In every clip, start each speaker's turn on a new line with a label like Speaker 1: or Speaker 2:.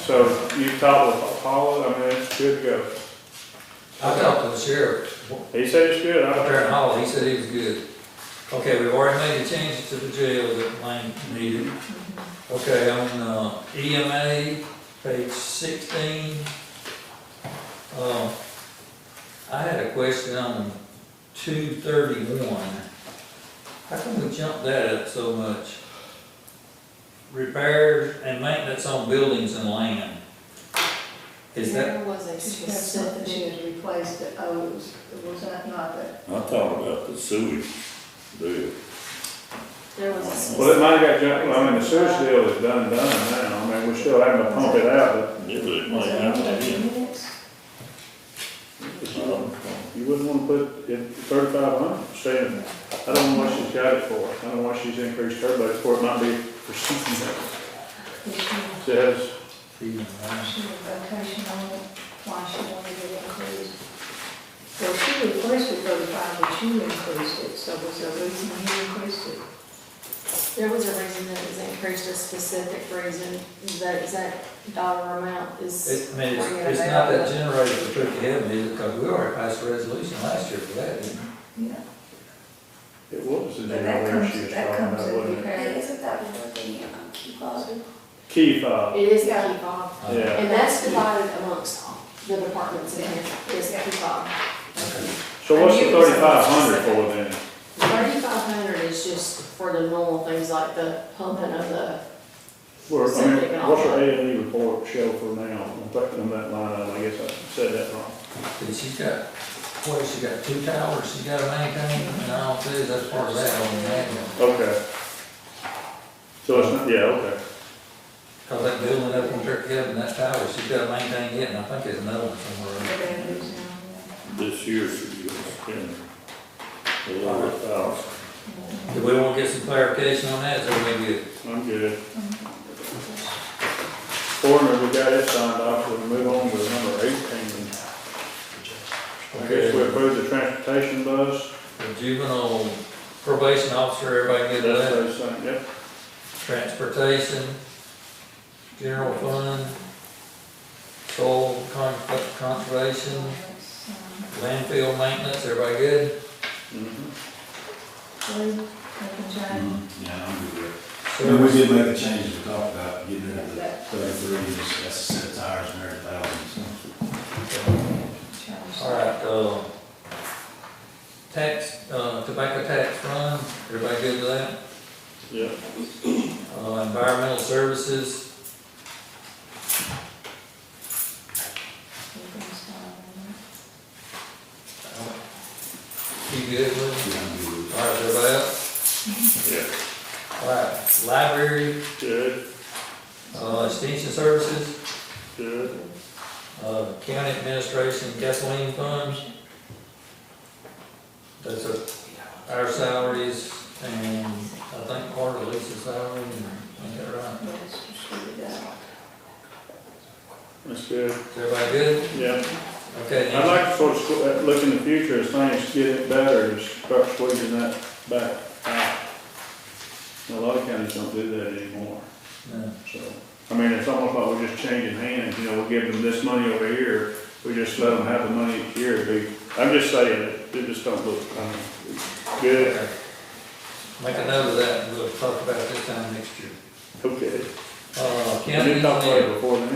Speaker 1: So you talked with Apollo, I mean, it's good to go.
Speaker 2: I talked to the sheriff up
Speaker 1: He said it's good, I don't,
Speaker 2: there in Hall, he said he was good. Okay, we've already made the changes to the jail that Lane needed. Okay, on uh, EMA, page sixteen. Uh, I had a question on two thirty-one. How come we jumped that up so much? Repairs and maintenance on buildings and land. Is that,
Speaker 3: There was a
Speaker 4: Is that something she
Speaker 3: specific,
Speaker 4: had replaced that owes, was that not that?
Speaker 5: I thought about the sewage deal.
Speaker 3: there was a
Speaker 1: well, it
Speaker 3: specific,
Speaker 1: might have got jumped, I mean, the sewage deal is done, done now, I mean, we still having to pump it out,
Speaker 5: It was
Speaker 4: Was
Speaker 5: like,
Speaker 4: it
Speaker 5: I
Speaker 4: not that
Speaker 5: mean,
Speaker 4: minutes?
Speaker 5: um,
Speaker 1: you wouldn't wanna put it thirty-five hundred, saying, I don't know what she's got it for, I don't know why she's increased her budget for, it. it might be for something else.
Speaker 4: Did she,
Speaker 1: It Says,
Speaker 2: E
Speaker 4: she had vacation on it, why she wanted it increased? Well, she requested thirty-five, but you increased it, so was there a reason you increased it?
Speaker 3: there was a reason that it was increased, a specific reason, that exact dollar amount is,
Speaker 2: It, I mean, it's, it's not that generator for Turkey Heaven, is it? Because we already passed a resolution last year for that, didn't we?
Speaker 4: Yeah,
Speaker 1: it was the
Speaker 4: But that
Speaker 1: generator she
Speaker 4: comes-
Speaker 1: was
Speaker 4: that
Speaker 1: talking
Speaker 4: comes
Speaker 1: about,
Speaker 4: in
Speaker 1: wasn't it?
Speaker 4: repair.
Speaker 6: Isn't that one of the um, key clauses?
Speaker 1: Key fob,
Speaker 3: it is the key fob.
Speaker 2: Uh,
Speaker 1: yeah,
Speaker 3: And that's divided amongst all the departments in here, is key fob.
Speaker 1: so what's the
Speaker 3: And you-
Speaker 1: thirty-five hundred for then?
Speaker 3: Thirty-five hundred is just for the normal things like the pumping of the,
Speaker 1: Well, I
Speaker 3: Something
Speaker 1: mean,
Speaker 3: else.
Speaker 1: what's her A and E report show for now, I'm thinking of that line, item. I guess I said that wrong.
Speaker 2: But she's got, what, she got two towers, she got a main tank, and I don't think that's part of that on the manual.
Speaker 1: Okay. So it's not, yeah, okay.
Speaker 2: Cause that building up on Turkey Heaven, that tower, she's got a main tank yet, and I think there's another one
Speaker 4: the
Speaker 2: somewhere.
Speaker 4: boundaries now,
Speaker 5: this year she was spending a lot of thousand.
Speaker 2: Do we wanna get some clarification on that, so we get,
Speaker 1: I'm good. Coroner, we got it signed off, we'll move on to number eighteen. I guess we approve the transportation bus,
Speaker 2: the juvenile probation officer, everybody
Speaker 1: that's
Speaker 2: get that?
Speaker 1: those things, yep.
Speaker 2: transportation, general fund, soil con- conservation,
Speaker 4: yeah.
Speaker 2: landfill maintenance, everybody good?
Speaker 1: Mhm.
Speaker 4: Blue, Lincoln Giant,
Speaker 7: Yeah, I'm good with it. And we did make the changes we talked about, getting rid of the thirty-three, that's a set of tires and everything else.
Speaker 4: Charles.
Speaker 2: Mm-hmm. All right, uh, tax, uh, tobacco tax fund, everybody good with that?
Speaker 1: Yeah,
Speaker 2: Uh, environmental services,
Speaker 4: Lincoln Giant.
Speaker 2: you good with
Speaker 7: Yeah, I'm good with it.
Speaker 1: yeah,
Speaker 2: it? All right, everybody else? All right, library,
Speaker 1: good,
Speaker 2: uh, extension services,
Speaker 1: good.
Speaker 2: uh, county administration gasoline funds. That's a, our salaries and I think part of Lisa's salary, and I got right.
Speaker 4: Yes, she did that.
Speaker 1: That's good,
Speaker 2: Is everybody good?
Speaker 1: yeah.
Speaker 2: Okay,
Speaker 1: I'd
Speaker 2: now,
Speaker 1: like to sort of squ- uh, look in the future as things get better, to start squeezing that back out. A lot of counties don't do that anymore.
Speaker 2: no.
Speaker 1: So, I mean, it's almost like we're just changing hands, you know, we give them this money over here, we just let them have the money here, They- I'm just saying, it, it just don't look, I mean, good,
Speaker 2: Okay. Make a note of that, and we'll talk about it this time next year.
Speaker 1: okay.
Speaker 2: Uh,
Speaker 1: I
Speaker 2: county
Speaker 1: didn't talk about
Speaker 2: engineer,
Speaker 1: it before now.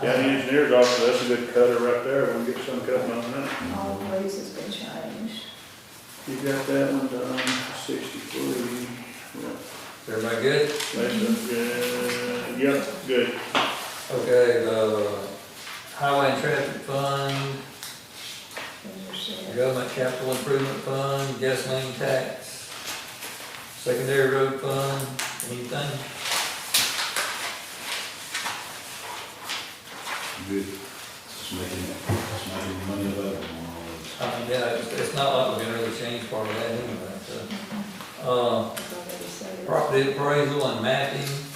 Speaker 4: Okay,
Speaker 1: County engineer's office, that's a good cutter right there, we'll get some cutting on that.
Speaker 4: all the ways has been changed.
Speaker 1: You got that one done, sixty-three, yeah,
Speaker 2: everybody good?
Speaker 1: that's a good, yep, good.
Speaker 2: Okay, the highway and traffic fund,
Speaker 4: Those are said.
Speaker 2: Government capital improvement fund, gasoline tax, secondary road fund, anything?
Speaker 7: Good. Just making, just making money available on all of this.
Speaker 2: I mean, yeah, it's, it's not like we're gonna really change part of that anyway, so. Uh,
Speaker 4: Those are said.
Speaker 2: property appraisal and mapping, Um.